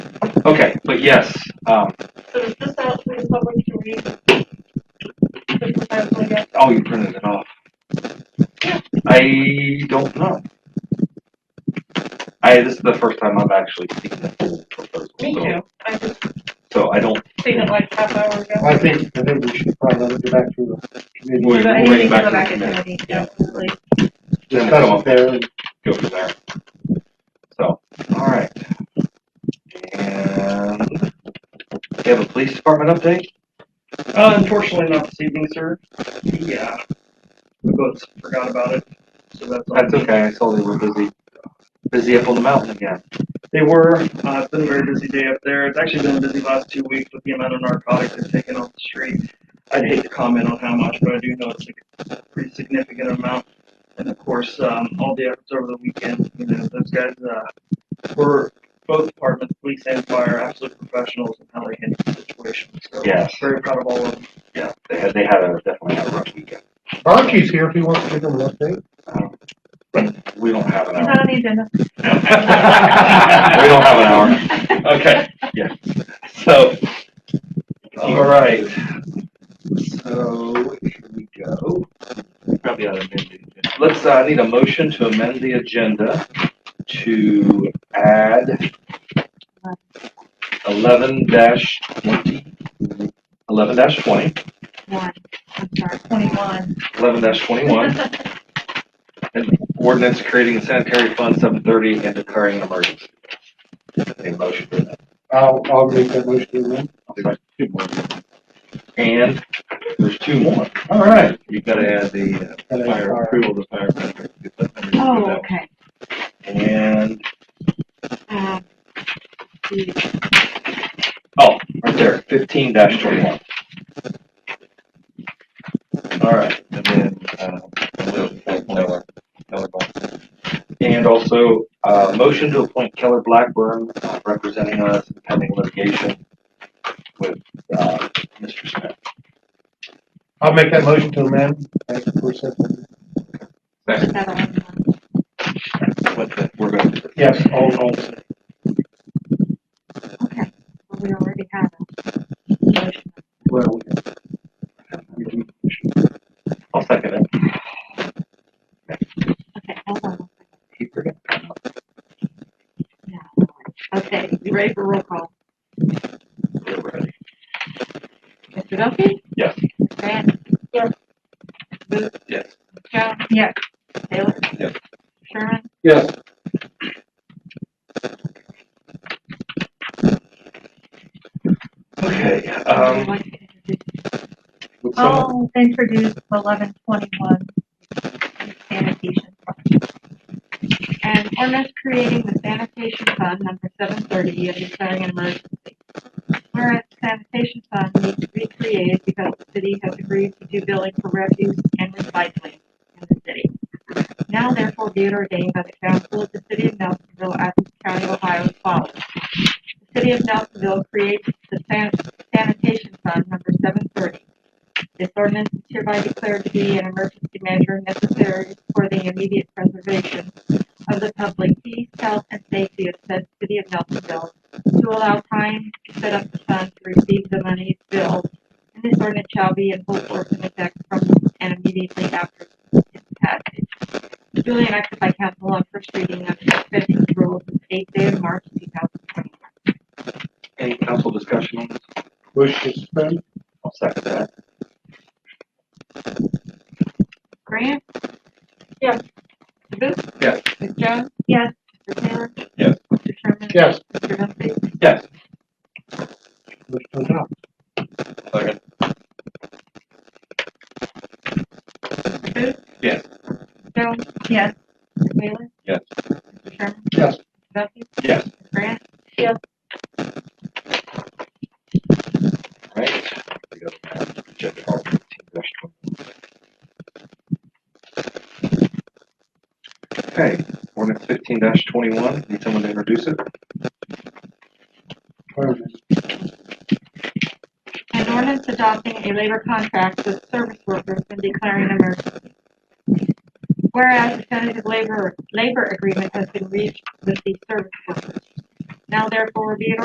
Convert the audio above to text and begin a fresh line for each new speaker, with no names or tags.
Okay, but yes, um,
So is this out for the public to read? The proposal yet?
oh, you printed it off. I don't know. I, this is the first time I've actually seen the full proposal,
Me
so,
too. I just
so I don't,
seen it like half hour ago.
I think, I think we should probably let it go back to the committee.
We'll-
But I
we'll
think
bring
we
it
can
back
go
to
back
the
into
minute.
committee,
Yeah.
absolutely.
Discuss it there and
go from there. So, alright. And, do you have a police department update?
Uh, unfortunately, not this evening, sir. Yeah, we both forgot about it, so that's all.
That's okay, I saw they were busy, busy up on the mountain again.
They were. Uh, it's been a very busy day up there. It's actually been a busy last two weeks with the amount of narcotics they've taken off the street. I'd hate to comment on how much, but I do know it's a pretty significant amount. And of course, um, all the efforts over the weekend, you know, those guys uh, were both departments, police and fire, absolute professionals in how they handled the situation. So
Yes.
very proud of all of them.
Yeah, they had, they had a, definitely had a rough weekend.
Archie's here if he wants to give him an update.
Um, But we don't have an
It's
hour.
not on the agenda.
we don't have an hour. Okay. Yeah. So. All right. So here we go. Probably ought to amend the agenda. Let's. Uh, I need a motion to amend the agenda to add eleven dash twenty. Eleven dash twenty.
One, I'm sorry, twenty-one.
Eleven dash twenty-one. An ordinance creating a sanitary fund seven thirty and declaring an emergency. Need a motion for that.
I'll, I'll make that motion then.
And there's two more. All right. You gotta add the uh, fire approval, the fire. contract.
Oh, okay.
And,
Um, the-
oh, right there, fifteen dash twenty-one. All right,
And then, uh,
and also, uh, motion to appoint Keller Blackburn uh, representing us in pending litigation with, uh, Mr. Smith.
I'll make that motion to amend. Thank you for a second.
put that on. um,
What the, we're going to.
Yes, all, all.
Okay, Well, we already have a motion.
Well,
I'll second it.
Okay, hold on. one second.
He forgot.
Yeah, all right. Okay, you ready for roll call?
We're ready.
Mr. Duffy?
Yes.
Grant?
Yes.
Booth?
Yes.
Jones? Yes. Taylor?
Yes.
Sherman?
Yes.
Okay, um,
Would you like to introduce-
would someone-
I'll introduce eleven twenty-one sanitation. fund. An ordinance creating the sanitation fund number seven thirty and declaring an emergency. Whereas sanitation fund needs to be created because the city has agreed to do billing for refuse and recycling in the city. Now therefore be it ordained by the council of the city of Nelsonville, Athens County, Ohio as follows. The city of Nelsonville creates the san- sanitation fund number seven thirty this ordinance is hereby declared to be an emergency measure necessary for the immediate preservation of the public peace, health, and safety of said city of Nelsonville to allow time to set up the fund to receive the money billed. And this ordinance shall be in full force and effect from and immediately after its passage. Duly enacted by council on first reading under the suspension of the rules of the eighth day of March two thousand twenty-one.
Any council discussion on this?
wish to suspend?
I'll second that.
Grant?
Yes.
Mr. Booth?
Yes.
Ms. Jones?
Yes.
Mr. Taylor?
Yes.
Mr. Sherman?
Yes.
Mr. Duffy?
Yes.
Wish to adopt?
Second.
Mr. Booth?
Yes.
Jones? Yes. Mr. Taylor?
Yes.
Mr. Sherman?
Yes.
Mr. Duffy?
Yes.
Mr. Grant?
Right. We got, uh, agenda item 15-21. Okay, ordinance fifteen twenty-one, need someone to introduce it?
An ordinance adopting a labor contract with service workers and declaring an emergency. Whereas a tentative labor, labor agreement has been reached with the service workers. Now therefore be it